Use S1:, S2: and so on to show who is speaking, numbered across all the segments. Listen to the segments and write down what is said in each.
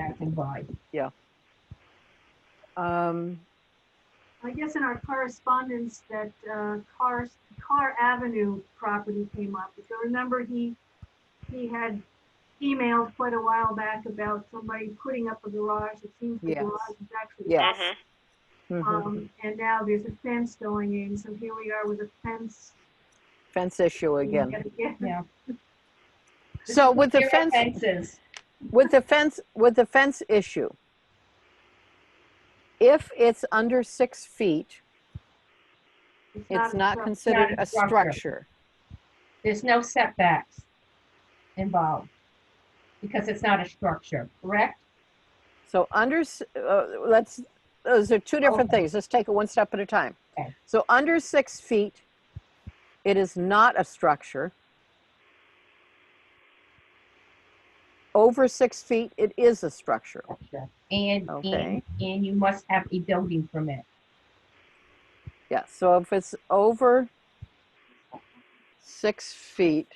S1: passing by.
S2: Um,
S3: I guess in our correspondence that uh, Carr, Carr Avenue property came up. If you remember, he, he had emailed quite a while back about somebody putting up a garage. It seems the
S2: Yes.
S3: garage is actually.
S2: Yes.
S4: Mhm.
S2: mhm.
S3: Um, and now there's a fence going in, so here we are with a fence.
S2: Fence issue again.
S3: Again.
S2: So with the
S1: Zero
S2: fence,
S1: Fences.
S2: with the fence, with the fence issue, if it's under six feet, it's
S3: a
S2: not
S3: truck.
S2: considered
S1: Not a
S2: a
S1: structure.
S2: structure.
S1: There's no setbacks involved because it's not a structure, correct?
S2: So under, s- uh, let's, those are two different
S1: Okay.
S2: things. Let's take it one step at a time.
S1: Oh. Okay.
S2: So under six feet, it is not a structure. Over six feet, it is a structure.
S1: Structure. And, and,
S2: Okay.
S1: and you must have a building permit.
S2: Yeah, so if it's over six feet,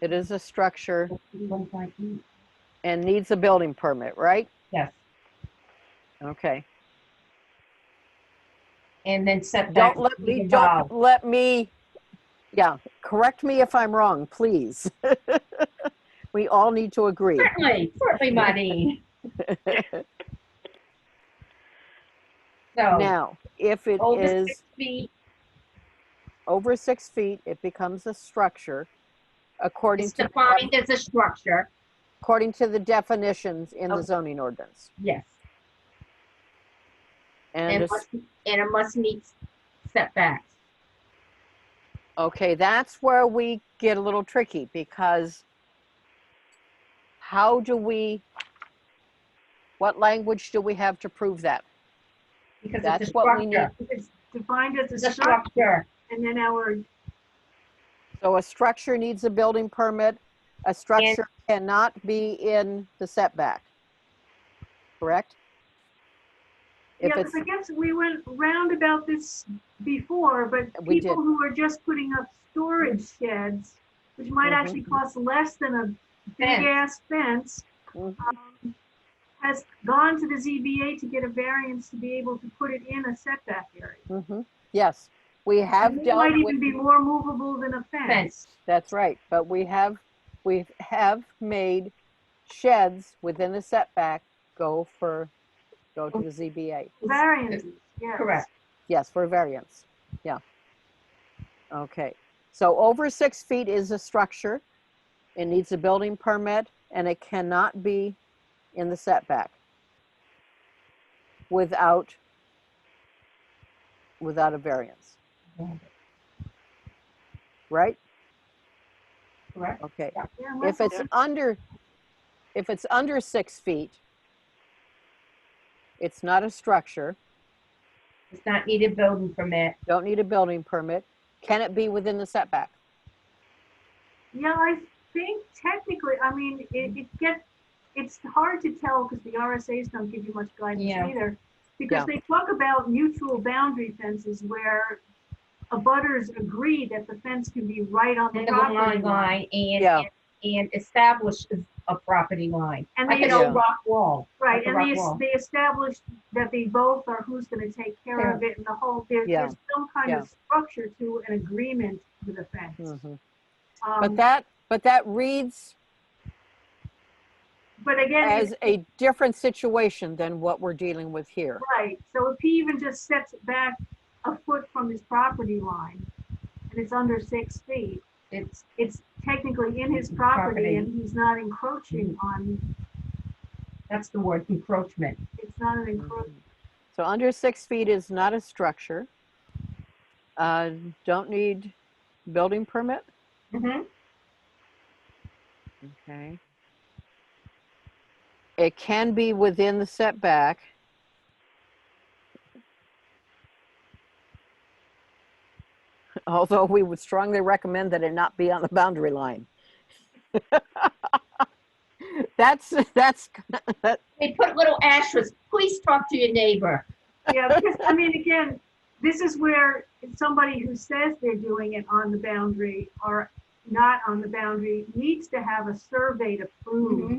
S2: it is a structure and needs a building permit, right?
S1: Yes,
S2: Okay.
S1: and then setbacks.
S2: Don't let me,
S1: involved.
S2: don't let me, yeah, correct me if I'm wrong, please. We all need to agree.
S1: Certainly, certainly, Marty. So,
S2: Now, if it
S1: over
S2: is
S1: six feet,
S2: over six feet, it becomes a structure according
S1: it's
S2: to,
S1: defined as a structure,
S2: according to the definitions in the
S1: Okay.
S2: zoning ordinance.
S1: yes.
S2: And,
S1: And
S2: a s-
S1: must- and it must meet setbacks.
S2: okay, that's where we get a little tricky because how do we, what language do we have to prove that?
S1: Because it's a
S2: That's what we
S1: structure.
S3: It's defined as
S1: It's
S3: a
S1: a
S3: structure,
S1: structure.
S3: and then our,
S2: So a structure needs a building permit, a structure cannot be in the setback, correct?
S3: yeah,
S2: If
S3: but
S2: it's,
S3: I guess we went round about this before, but
S2: We
S3: people
S2: did.
S3: who are just putting up storage sheds, which might
S2: Mhm.
S3: actually cost less than a
S1: Fence.
S3: big-ass fence,
S2: Mhm.
S3: um, has gone to the ZBA to get a variance to be able to put it in a setback area.
S2: Mhm, yes, we have
S3: And It might
S2: dealt with,
S3: even be more movable than a fence.
S1: Fence.
S2: that's right, but we have, we have made sheds within the setback go for, go to the ZBA.
S3: Variances, yes.
S1: Correct.
S2: Yes, for variance, yeah. Okay, so over six feet is a structure. It needs a building permit and it cannot be in the setback without, without a variance, right?
S1: Correct.
S2: Okay,
S3: Yeah,
S2: if
S3: unless
S2: it's under, if it's under six feet, it's not a structure,
S1: It's not needed building permit.
S2: don't need a building permit. Can it be within the setback?
S3: Yeah, I think technically, I mean, it, it get, it's hard to tell because the RSA's don't give you much guidance
S1: Yeah.
S3: either. Because
S2: Yeah.
S3: they talk about mutual boundary fences where abutters agree that the fence can be right on the
S1: And the line
S3: property line.
S1: line and,
S2: Yeah.
S1: and- and establish a property line.
S3: And
S1: Like
S3: they,
S1: an
S2: Yeah.
S1: old rock wall.
S3: right,
S1: like a
S3: and they,
S1: rock
S3: es-
S1: wall.
S3: they established that they both are who's gonna take care of it and the whole, there,
S2: Yeah.
S3: there's some kind of structure to an agreement with the fence.
S2: Mhm.
S3: Um,
S2: But that, but that reads
S3: But again.
S2: as
S3: it-
S2: a different situation than what we're dealing with here.
S3: Right, so if he even just steps back a foot from his property line, and it's under six feet,
S1: It's,
S3: it's technically in his property,
S1: Property. Mm-hmm.
S3: and he's not encroaching on,
S1: that's the word encroachment.
S3: it's not an encroach.
S2: So under six feet is not a structure. Uh, Don't need building permit?
S1: Mhm.
S2: Okay. It can be within the setback. Although we would strongly recommend that it not be on the boundary line. That's, that's,
S1: They put little asterisks, please talk to your neighbor.
S3: Yeah, because, I mean, again, this is where somebody who says they're doing it on
S1: Mm-hmm.
S3: the boundary or not on the boundary needs to have a survey to prove